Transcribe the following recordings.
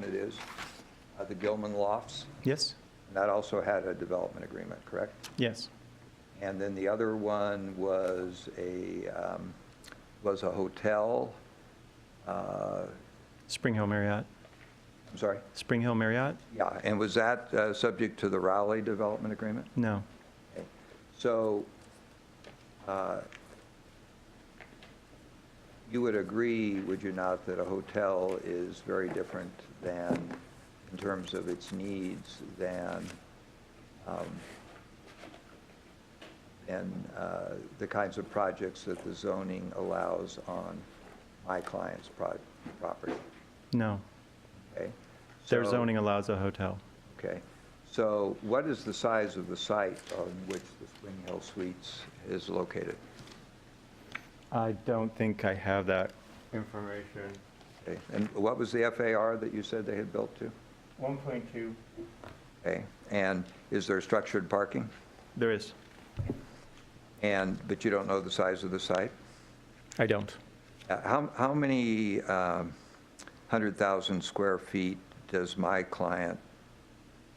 one it is, uh, the Gilman Lofts. Yes, And that also had a development agreement, correct? yes, And then the other one was a, um, was a hotel, uh, Spring Hill Marriott, I'm sorry, Spring Hill Marriott? yeah, and was that uh, subject to the Raleigh development agreement? No, Okay. So uh, you would agree, would you not, that a hotel is very different than, in terms of its needs, than, um, than uh, the kinds of projects that the zoning allows on my client's prod- property? no. Okay? Their So- zoning allows a hotel. Okay, so what is the size of the site on which the Spring Hill Suites is located? I don't think I have that. information, Okay, And what was the FAR that you said they had built to? 1.2. Okay, and is there structured parking? There is. And, but you don't know the size of the site? I don't. Uh, How, how many um, 100,000 square feet does my client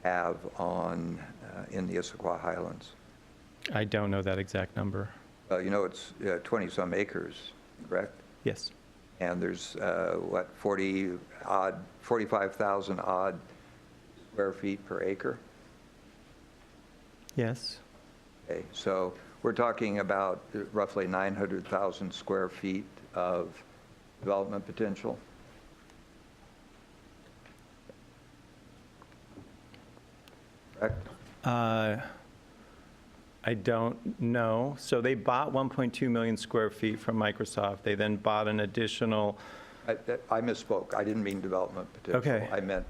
have on, uh, in the Issaquah Highlands? I don't know that exact number. Well, you know, it's 20-some acres, correct? Yes, And there's, uh, what, 40 odd, 45,000 odd square feet per acre? yes, Okay, so we're talking about roughly 900,000 square feet of development potential? Correct? Uh, I don't know. So they bought 1.2 million square feet from Microsoft. They then bought an additional, I that- I misspoke. I didn't mean development potential. Okay. I meant.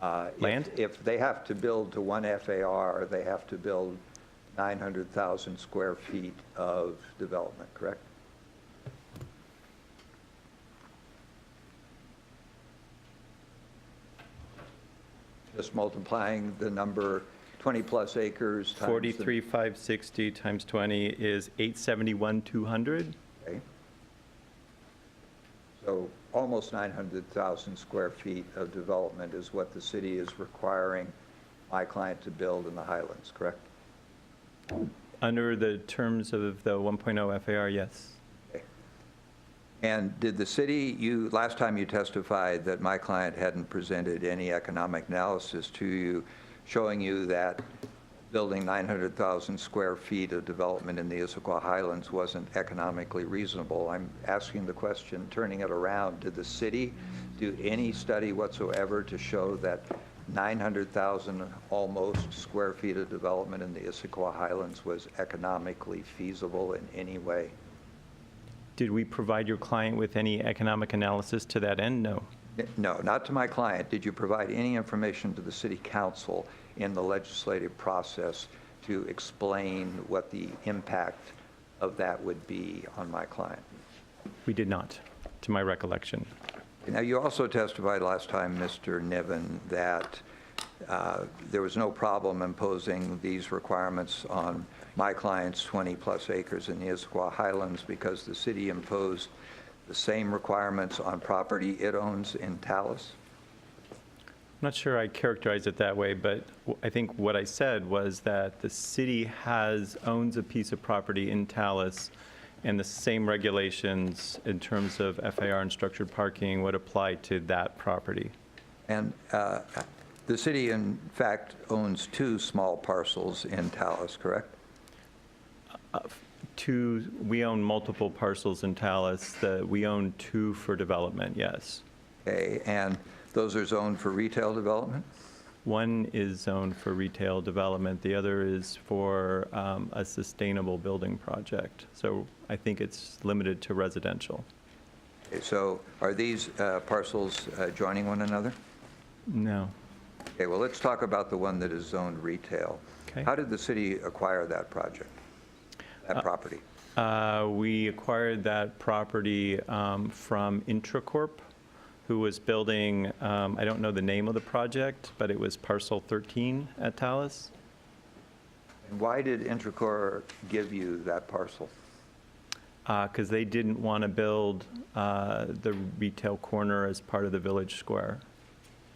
uh, if- Land? If they have to build to one FAR, they have to build 900,000 square feet of development, correct? Just multiplying the number, 20-plus acres times. the- 43,560 times 20 is 871,200? Okay. So almost 900,000 square feet of development is what the city is requiring my client to build in the Highlands, correct? Under the terms of the 1.0 FAR, yes. Okay. And did the city, you, last time you testified that my client hadn't presented any economic analysis to you, showing you that building 900,000 square feet of development in the Issaquah Highlands wasn't economically reasonable. I'm asking the question, turning it around, did the city do any study whatsoever to show that 900,000 almost square feet of development in the Issaquah Highlands was economically feasible in any way? Did we provide your client with any economic analysis to that end? No. No, not to my client. Did you provide any information to the city council in the legislative process to explain what the impact of that would be on my client? We did not, to my recollection. Now, you also testified last time, Mr. Niven, that uh, there was no problem imposing these requirements on my client's 20-plus acres in the Issaquah Highlands because the city imposed the same requirements on property it owns in Tallis. I'm not sure I characterized it that way, but w- I think what I said was that the city has, owns a piece of property in Tallis, and the same regulations in terms of FAR and structured parking would apply to that property. And uh, the city, in fact, owns two small parcels in Tallis, correct? Two, we own multiple parcels in Tallis, that we own two for development, yes. Okay, and those are zoned for retail development? One is zoned for retail development, the other is for um, a sustainable building project. So I think it's limited to residential. Okay, So are these uh, parcels uh, joining one another? No. Okay, well, let's talk about the one that is zoned retail. Okay. How did the city acquire that project, that property? Uh, We acquired that property um, from Intracorp, who was building, um, I don't know the name of the project, but it was parcel 13 at Tallis. And why did Intracor give you that parcel? uh, because they didn't want to build uh, the retail corner as part of the village square.